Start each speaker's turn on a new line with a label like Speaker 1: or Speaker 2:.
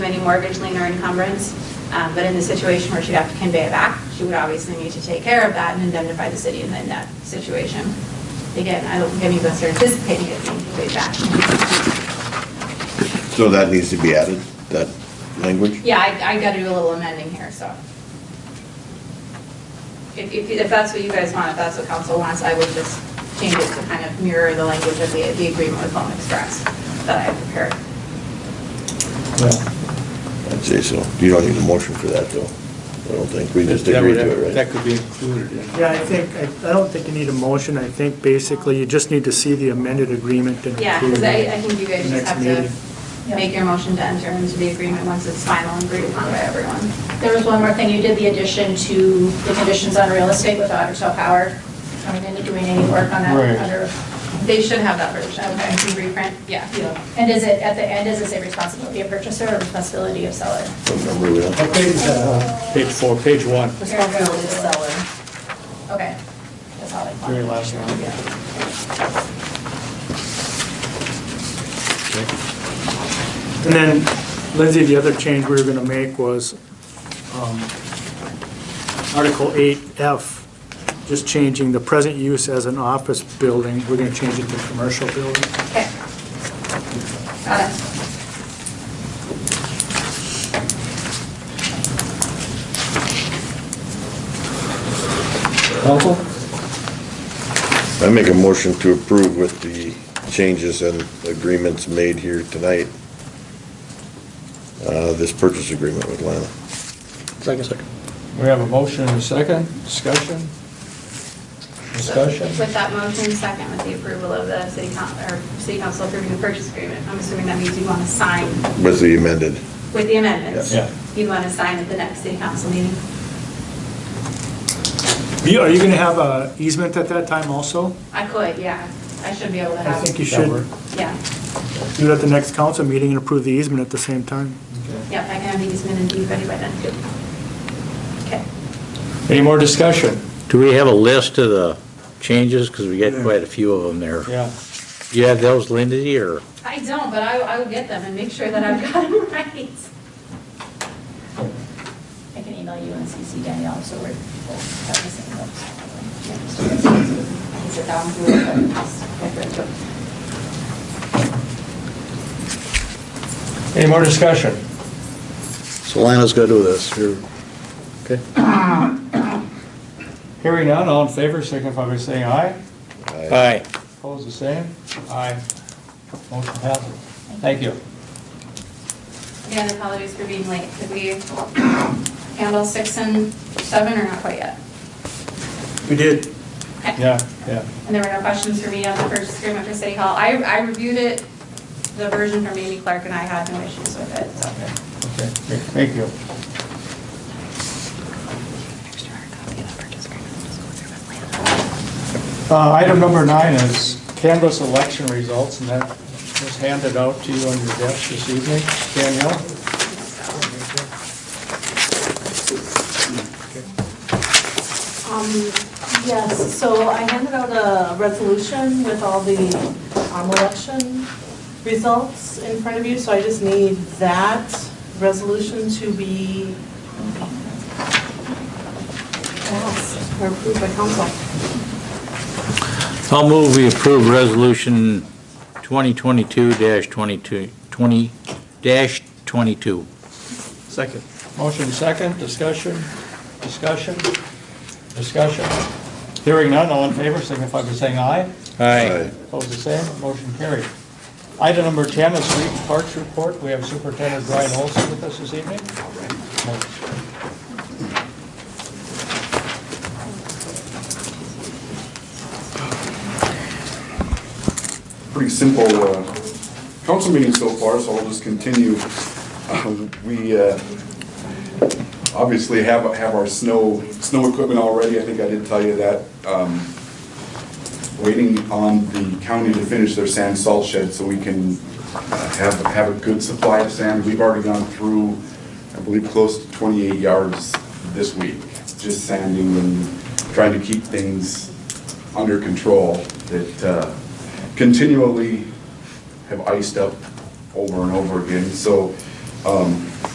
Speaker 1: any mortgage lien or encumbrance. Um, But in the situation where she'd have to convey it back, she would obviously need to take care of that and indemnify the city in that situation. Again, I don't think any of us are anticipating it being conveyed back.
Speaker 2: So that needs to be added, that language?
Speaker 1: Yeah, I, I gotta do a little amending here, so. If, if, if that's what you guys want, if that's what council wants, I would just change it to kind of mirror the language of the, the agreement with Home Express that I prepared.
Speaker 2: I'd say so. You don't need a motion for that, though. I don't think. We just
Speaker 3: That
Speaker 2: agreed
Speaker 3: would-
Speaker 2: to it,
Speaker 3: That
Speaker 2: right?
Speaker 3: could be included in.
Speaker 4: Yeah, I think, I- I don't think you need a motion, I think basically you just need to see the amended agreement and
Speaker 1: Yeah,
Speaker 4: approve
Speaker 1: because I, I
Speaker 4: it.
Speaker 1: think you guys just
Speaker 4: Next
Speaker 1: have
Speaker 4: meeting.
Speaker 1: to make your motion to enter into the agreement once it's final and agreed upon by everyone.
Speaker 5: There was one more thing, you did the addition to the conditions on real estate with Otter Tail Power. I mean, into doing any work on
Speaker 3: Right.
Speaker 5: that under,
Speaker 1: They should have that version, okay, reprint, yeah.
Speaker 5: you know. And is it, at the end, is it say responsibility of purchaser or responsibility of seller?
Speaker 2: Remember we don't-
Speaker 3: Page four, page one,
Speaker 5: Responsibility of seller. Okay. That's all I wanted.
Speaker 3: very last one.
Speaker 4: And then Lindsay, the other change we were gonna make was um, Article eight F, just changing the present use as an office building, we're gonna change it to commercial building.
Speaker 1: Okay. Got it.
Speaker 3: Council?
Speaker 2: I make a motion to approve with the changes and agreements made here tonight, uh, this purchase agreement with Lana.
Speaker 3: Second, second. We have a motion and a second, discussion? Discussion?
Speaker 1: With that motion, second, with the approval of the city coun, or city council approving the purchase agreement, I'm assuming that means you want to sign
Speaker 2: With the amended,
Speaker 1: with the amendments.
Speaker 3: Yeah.
Speaker 1: You want to sign at the next city council meeting?
Speaker 4: You- Are you gonna have a easement at that time also?
Speaker 1: I could, yeah. I should be able to
Speaker 4: I
Speaker 1: have,
Speaker 4: think you
Speaker 3: That work?
Speaker 4: should
Speaker 1: yeah.
Speaker 4: do it at the next council meeting and approve the easement at the same time.
Speaker 1: Yep, I can have these minutes ready by then, too. Okay.
Speaker 3: Any more discussion?
Speaker 6: Do we have a list of the changes? Because we get quite a few of them there.
Speaker 3: Yeah.
Speaker 6: Do you have those, Lindy, or?
Speaker 1: I don't, but I, I will get them and make sure that I've got them right.
Speaker 5: I can email you and CC Danielle, so we're, we'll have the same notes.
Speaker 1: Sit down, do it, but just get rid of it.
Speaker 3: Any more discussion?
Speaker 6: So Lana's gonna do this. You're- Okay.
Speaker 3: Hearing none, all in favor, signify by saying aye.
Speaker 2: I
Speaker 6: Aye.
Speaker 3: Opposed, the same? Aye. Motion passes. Thank you.
Speaker 1: Again, apologies for being late. Did we handle six and seven or not quite yet?
Speaker 4: We did.
Speaker 3: Yeah, yeah.
Speaker 1: And there were no questions for me on the purchase agreement for City Hall. I, I reviewed it, the version from Amy Clark, and I had no issues with it, so.
Speaker 3: Okay, okay. Thank you.
Speaker 1: Extra hard copy of the purchase agreement, just go through with Lana.
Speaker 3: Uh, Item number nine is canvas election results, and that was handed out to you on your desk this evening. Danielle?
Speaker 7: Um, Yes, so I handed out a resolution with all the um, election results in front of you, so I just need that resolution to be passed or approved by council.
Speaker 6: I'll move we approve resolution 2022-22, 20, dash 22.
Speaker 3: Second. Motion second, discussion, discussion, discussion. Hearing none, all in favor, signify by saying aye.
Speaker 6: Aye.
Speaker 3: Opposed, the same, motion carried. Item number 10 is street parks report. We have Superintendent Brian Olson with us this evening.
Speaker 8: pretty simple uh, council meeting so far, so I'll just continue. Um, We uh, obviously have, have our snow, snow equipment already, I think I did tell you that. Um, Waiting on the county to finish their sand salt shed so we can uh, have, have a good supply of sand. We've already gone through, I believe, close to 28 yards this week, just sanding and trying to keep things under control that uh, continually have iced up over and over again. So um,